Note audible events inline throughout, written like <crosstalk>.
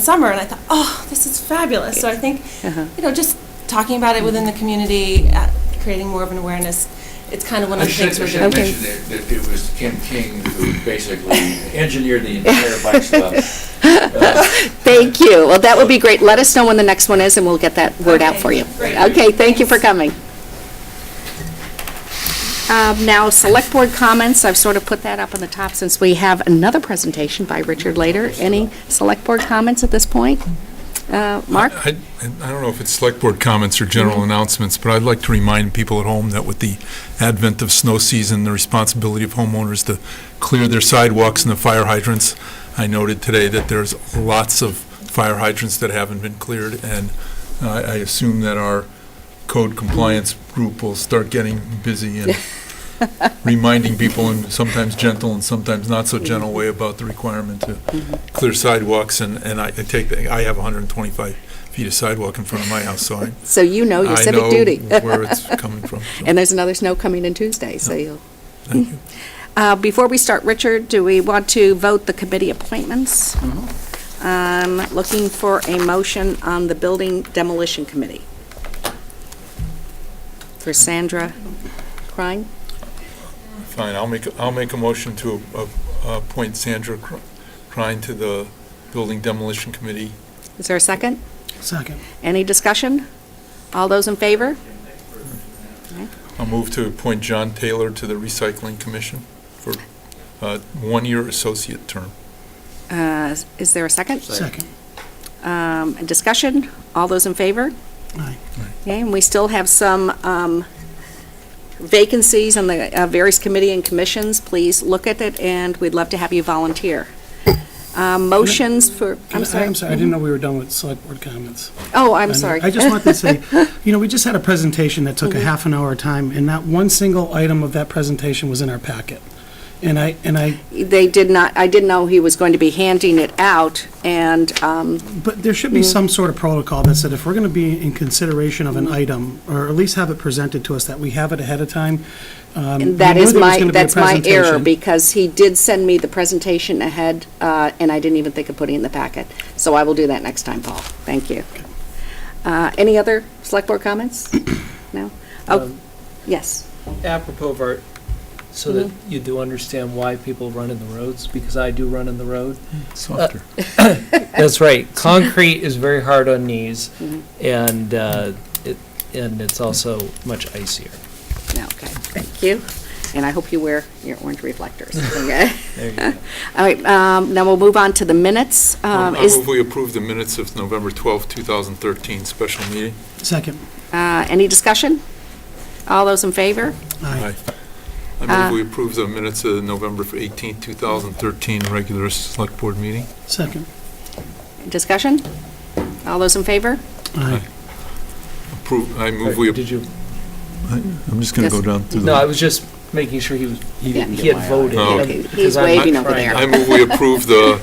summer, and I thought, oh, this is fabulous. So I think, Uh-huh. you know, just talking about it within the community, uh, creating more of an awareness, it's kind of one of I the should, things I we're should doing. Okay. mention that, that it was Kim King who basically engineered the <laughs> entire bike swap. Uh, Thank you. Well, that would be great. Let us know when the next one is, and we'll get that word out Okay, for you. great. Okay, thank you for coming. Um, Now, Select Board comments, I've sort of put that up on the top since we have another presentation by Richard later. Any Select Board comments at this point? Uh, Mark? I I don't know if it's select board comments or general announcements, but I'd like to remind people at home that with the advent of snow season, the responsibility of homeowners to clear their sidewalks and the fire hydrants. I noted today that there's lots of fire hydrants that haven't been cleared, and uh, I assume that our code compliance group will start getting busy and reminding people in sometimes gentle and sometimes not so gentle way about the requirement to clear sidewalks, and, and I I take, the- I have 125 feet of sidewalk in front of my house, so <laughs> I, So you know your I know Oh, civic duty. <laughs> <laughs> where it's coming from. so And there's another snow coming in Tuesday, so you'll... Thank you. <laughs> Uh, Before we start, Richard, do we want to vote the committee appointments? Mm-hmm. Um, Looking for a motion on the Building Demolition Committee. For Sandra Klein? Fine, I'll make, I'll make a motion to a- a- appoint Sandra Cr- Crine to the Building Demolition Committee. Is there a second? Second. Any discussion? All those in favor? I'll move to appoint John Taylor to the Recycling Commission for a one-year associate term. Uh, Is there a second? Second. Um, Discussion? All those in favor? Aye. Okay, and we still have some um, vacancies on the uh, various committee and commissions. Please look at it, and we'd love to have you volunteer. Uh, Motions for, Can I'm I- sorry. I'm sorry, I didn't know we were done with select board comments. Oh, I'm sorry. Mm-hmm. I just wanted to <laughs> say, you know, we just had a presentation that took a half an hour time, and not one single item of that presentation was in our packet. And I, and I, They did not, I didn't know he was going to be handing it out, and, um, but there should be some sort of protocol that said if we're going to be in consideration of Mm-hmm. an item, or at least have it presented to us, that we have it ahead of time. Um, that we knew is there was my, gonna be a that's my error, presentation. because he did send me the presentation ahead, uh, and I didn't even think of putting it in the packet. So I will do that next time, Paul. Thank you. Uh, Any other Select Board <coughs> comments? Um, No? Oh, yes. apropos of art, so that Mm-hmm. you do understand why people run in the roads, because I do run in the road. Uh, Softer. <laughs> That's right. Concrete is very hard on knees, Mm-hmm. and, uh, it, and it's also much icier. No, okay, thank you. And I hope you wear your orange reflectors, <laughs> okay? There you go. All right, um, now we'll move on to the minutes. Oh, I Um, Is, move we approve the minutes of November twelfth, two 2013 special meeting. Second. uh, any discussion? All those in favor? Aye. I move we approve the minutes of November 18th, 2013 regular select board meeting. Second. Discussion? All those in favor? Aye. Approve, I move we, Did you, I'm just gonna go Yes. down through no, I was just making sure he was, he Yeah. he had voted. Oh, okay. because He's I'm waving over trying. there. I move we approve the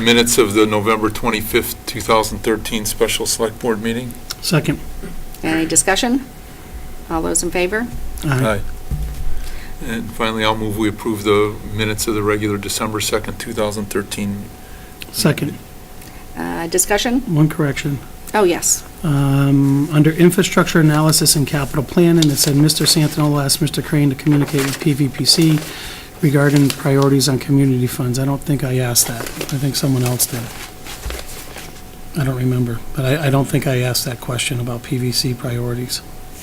minutes of the November 25th, 2013 special select board meeting. Second. Any discussion? All those in favor? Aye. And finally, I'll move we approve the minutes of the regular December 2nd, 2013. Second. Uh, Discussion? One correction. Oh, yes. Um, Under infrastructure analysis and capital planning, it said Mr. Santinola asked Mr. Crane to communicate with PVPC regarding priorities on community funds. I don't think I asked that. I think someone else did. I don't remember, but I, I don't think I asked that question about PVC priorities,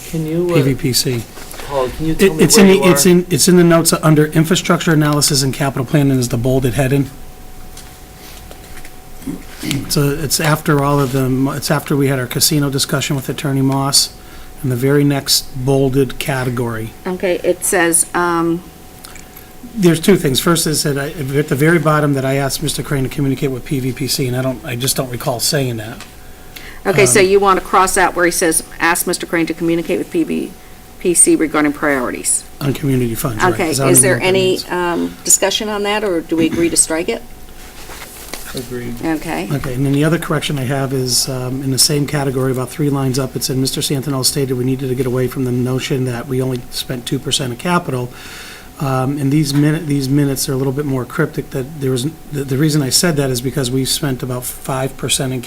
Can you, uh, PVPC. Paul, can you It- tell me It's in, where you the it's are? in, it's in the notes under infrastructure analysis and capital planning is the bolded heading. So it's after all of them, it's after we had our casino discussion with Attorney Moss, and the very next bolded category. Okay, it says, um, There's two things. First is that I, at the very bottom that I asked Mr. Crane to communicate with PVPC, and I don't, I just don't recall saying that. okay, Um, so you want to cross out where he says, "Ask Mr. Crane to communicate with PBPC regarding priorities." On community funds, right? Okay, 'cause I don't is even there know what that any means. um, discussion on that, or do we agree to strike it? Agreed. Okay. Okay, and then the other correction I have is, um, in the same category, about three lines up, it said, Mr. Santinelli stated we needed to get away from the notion that we only spent two percent of capital. Um, And these minute, these minutes are a little bit more cryptic, that there was, the the reason I said that is because we spent about 5% in